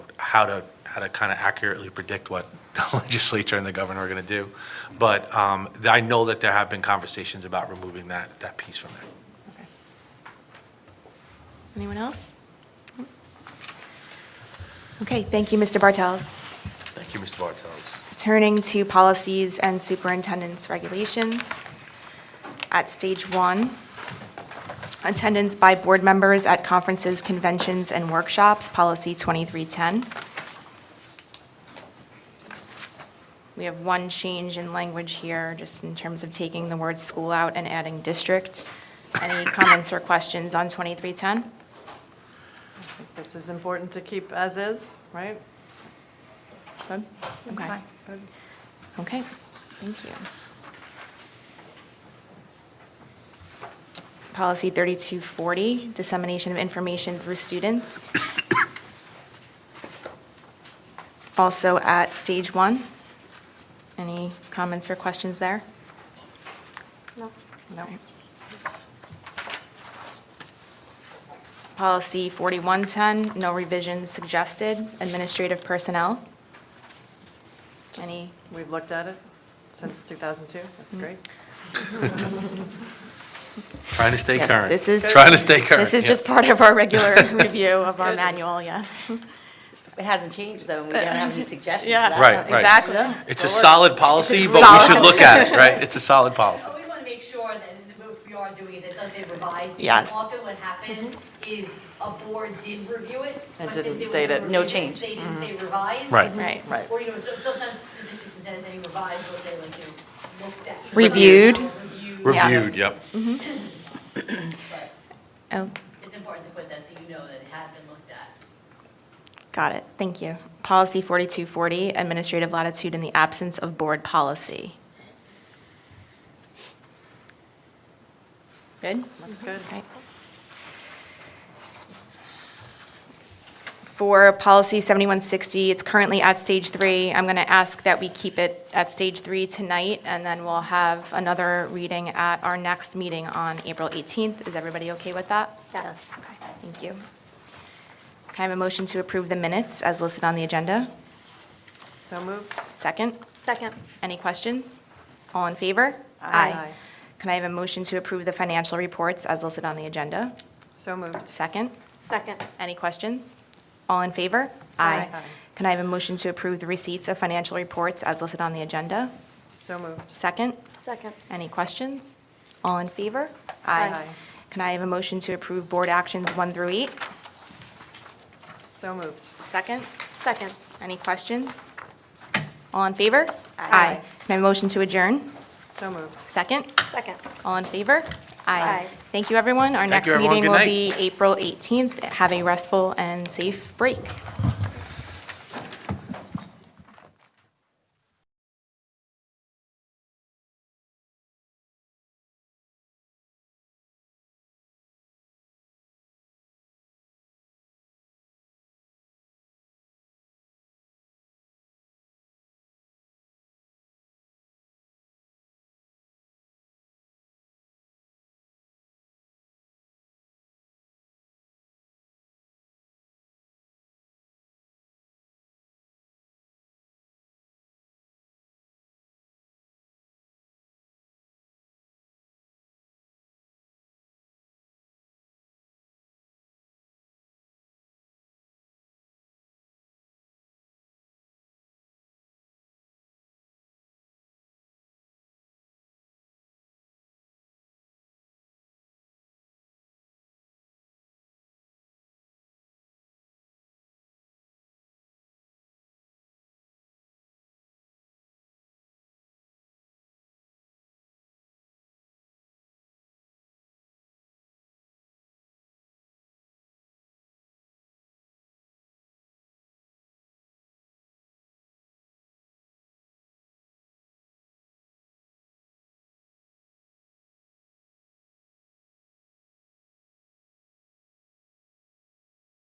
how to, how to kind of accurately predict what the legislature and the governor are going to do. But um, th- I know that there have been conversations about removing that, that piece from there. Okay. Anyone else? Okay, thank you, Mr. Bartels. Thank you, Mr. Bartels. Turning to policies and superintendent's regulations. At stage one, attendance by board members at conferences, conventions, and workshops, policy 2310. We have one change in language here, just in terms of taking the word school out and adding district. Any comments or questions on 2310? This is important to keep as is, right? Good? Okay. Okay, thank you. Policy 3240, dissemination of information through students. Also at stage one. Any comments or questions there? No. No. Policy 4110, no revisions suggested, administrative personnel. Any? We've looked at it since 2002, Mm-hmm. that's great. Trying to stay Yes, current. this is- Trying to stay current. This is yeah. just part of our regular review of our manual, yes. It hasn't changed though, and we don't have any suggestions. Yeah. That's Right, not- right. Exactly. It's a solid policy, but we should look at it, right? It's a solid policy. But we want to make sure that in the book we are doing it, it does say revised. because Yes. Often what happens is a board did review it. And but since didn't was date it. No reviewed, change. They didn't say revised. Right. Right. Right. Or, you know, so- sometimes the district instead of saying revised, they'll say like, you know, looked at. you know, Reviewed. Reviewed. Yeah. Reviewed, yep. But Oh, It's important to put that so you know that it has been looked at. got it, thank you. Policy 4240, administrative latitude in the absence of board policy. Good? Looks good. Okay. For policy 7160, it's currently at stage three. I'm going to ask that we keep it at stage three tonight, and then we'll have another reading at our next meeting on April 18th. Is everybody okay with that? Yes. Okay, thank you. Can I have a motion to approve the minutes as listed on the agenda? So moved. Second? Second. Any questions? All in favor? Aye. Can I have a motion to approve the financial reports as listed on the agenda? So moved. Second? Second. Any questions? All in favor? Aye. Aye. Can I have a motion to approve the receipts of financial reports as listed on the agenda? So moved. Second? Second. Any questions? All in favor? Aye. Aye. Can I have a motion to approve board actions one through eight? So moved. Second? Second. Any questions? All in favor? Aye. Can I have a motion to adjourn? So moved. Second? Second. All in favor? Aye. Thank you, everyone. Our Thank next you, everyone. meeting Good will night. be April 18th. Have a restful and safe break.